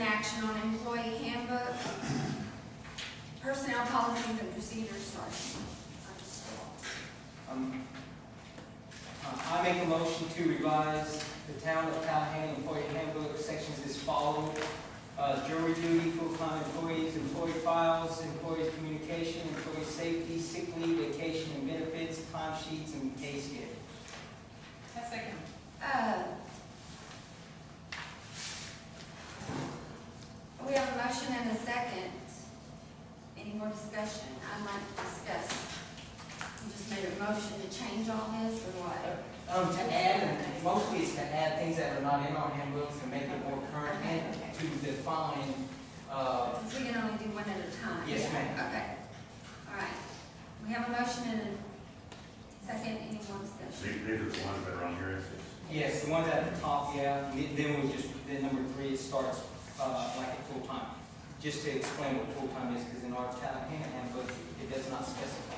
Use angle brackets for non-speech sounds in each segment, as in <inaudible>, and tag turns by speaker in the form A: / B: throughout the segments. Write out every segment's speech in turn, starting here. A: action on employee handbook, personnel policies and procedures, sorry. I just saw.
B: Um, uh, I make a motion to revise the town of Tallahassee employee handbook sections as follows. Uh, Jury duty, full-time employees, employee files, employees' communication, employee safety, sick leave, vacation and benefits, time sheets, and pay scale.
C: I second.
A: Uh, We have a motion and a second. Any more discussion? I'd like to discuss. You just made a motion to change all this or what?
B: Um, to add, and mostly it's to add things that are not in our handbooks and make it more current and to define, uh,
A: Because we can only do one at a time.
B: Yes, ma'am.
A: Okay, all right. We have a motion and a second, any more discussion?
D: These, these are the ones that are on here, it's, it's-
B: Yes, the ones at the top, yeah, and then- then we just, then number three, it starts, uh, like at full-time. Just to explain what full-time is, because in our Tallahassee handbook, it does not specify.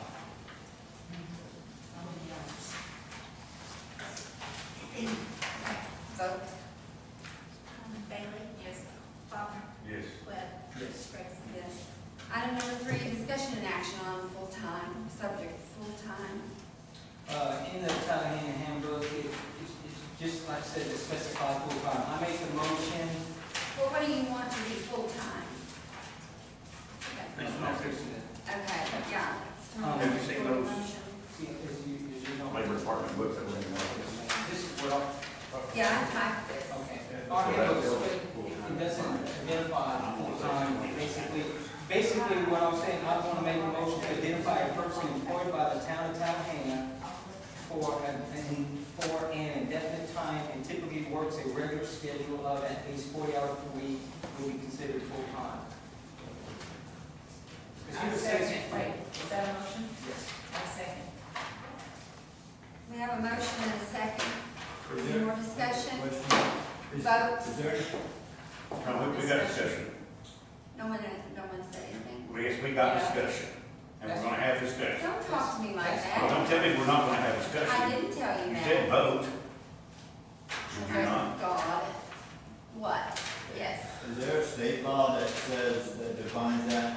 A: Vote.
E: Bailey? Yes. Faulkner?
D: yes,
E: Webb?
B: Yes.
E: Gregson?
A: Yes. Item number three, discussion and action on full-time, subject full-time.
B: Uh, in the Tallahassee handbook, it, it's, it's just like I said, to specify full-time. I make the motion,
A: Well, what do you want to be full-time? Okay,
D: Thanks,
B: no,
D: ma'am.
B: fix
A: Okay, yeah. it's time.
B: Um, have
D: you seen those?
B: See, as you, as you know.
D: labor department books that are in there.
B: This is what I,
A: Yeah, I typed this.
B: Okay, our handbook is split, it doesn't identify full-time, basically, basically what I'm saying, I wanna make a motion to identify a person employed by the town of Tallahassee for an, an- for an indefinite time and typically works a regular schedule of at least forty hours per week will be considered full-time. Because he was saying-
C: Wait, is that a motion?
B: Yes.
C: I second.
A: We have a motion and a second.
F: Is
A: Any
F: there-
A: more discussion?
F: Question? Is-
A: Vote.
F: Is there,
D: No, we, we got discussion,
A: No one, no one said anything.
D: we, yes, we got discussion, and we're gonna have discussion.
A: Don't talk to me like
D: Well,
A: that.
D: don't tell me we're not gonna have
A: I
D: discussion.
A: didn't tell you
D: You
A: that.
D: said vote. Did you
A: Oh,
D: not?
A: God. What? Yes.
F: is there a state law that says, that defines that?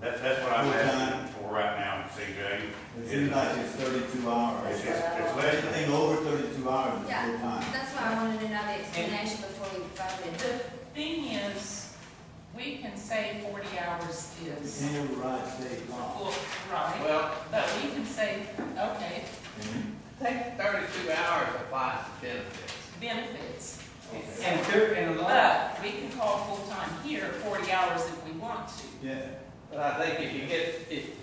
D: That's, that's what I'm asking for right now, CJ.
F: It seems like it's thirty-two hours.
D: It's, it's, it's less than,
F: Anything over thirty-two hours is
A: Yeah.
F: full-time.
A: That's why I wanted to know the explanation before we voted.
C: The thing is, we can say forty hours
F: You
C: is
F: can't override state law.
C: full, right?
G: Well,
C: But we can say, okay,
G: take thirty-two hours to apply to benefits.
C: benefits.
B: And there, and a lot,
C: But we can call full-time here forty hours if we want to.
F: Yeah,
G: But I think if you get, if,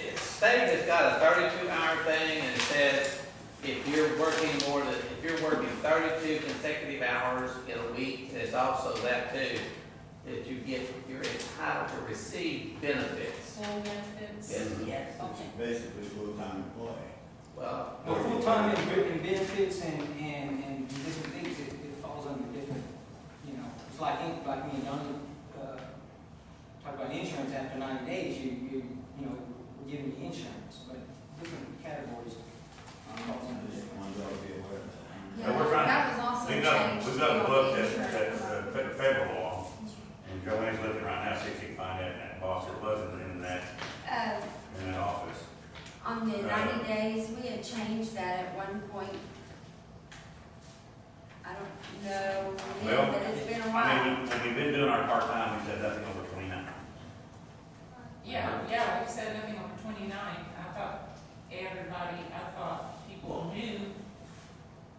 G: if state has got a thirty-two hour thing and it says if you're working more than, if you're working thirty-two consecutive hours in a week, and it's also that too, that you get, you're entitled to receive benefits.
C: Full benefits?
G: Yes.
C: Yes.
F: it's
C: Okay.
F: basically full-time employee.
G: Well,
B: well, full-time and written benefits and, and, and different things, it, it falls under different, you know, it's like, in- like me and Donnie, uh, talk about insurance after ninety days, you, you, you know, we're giving you insurance, but different categories.
F: I'm not gonna just want y'all to be aware of that.
A: Yeah,
D: No, we're fine.
A: That was also changed.
D: we've got, we've got a book that, that's,
A: Insurance.
D: uh, fe- federal law, and Joanne's looking right now, see if she can find that in that box, it wasn't in that,
A: Uh,
D: in that office.
A: On the ninety days, we had changed that at one point. I don't know, when,
D: Well,
A: but it's been a
D: I
A: while.
D: mean, when we've been doing our part-time, we said nothing over twenty-nine.
C: Yeah, yeah, we've said nothing over twenty-nine. I thought everybody, I thought people knew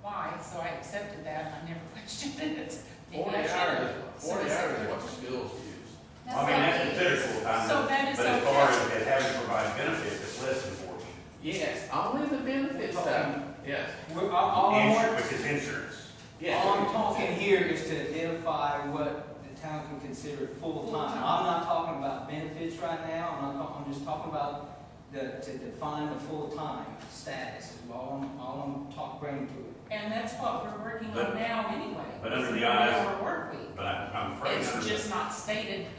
C: why, so I accepted that. I never <laughs> questioned it.
G: forty
C: Maybe I
G: hours,
C: should.
G: forty
C: So
G: hours
C: it's-
G: is what the schools use.
D: Well, I mean,
A: not
D: that's
A: it.
D: considered full-time,
C: So that is
D: but as far
C: okay.
D: as it having provided benefits, it's less than forty.
G: Yes, only the benefits stuff, yes.
B: We're, all, all I want-
D: Insu- Which is insurance.
G: yes.
B: All Oh, I'm talking here is to identify what the town can consider full-time. I'm not talking about benefits right now, I'm not, talk- I'm just talking about the, to define the full-time status is all I'm, all I'm talk, bringing to it.
C: And that's what we're working on
D: But-
C: now anyway.
D: but under the
C: It's an
D: eyes-
C: hour work week.
D: But I- I'm afraid,
C: It's
D: under the-
C: just not stated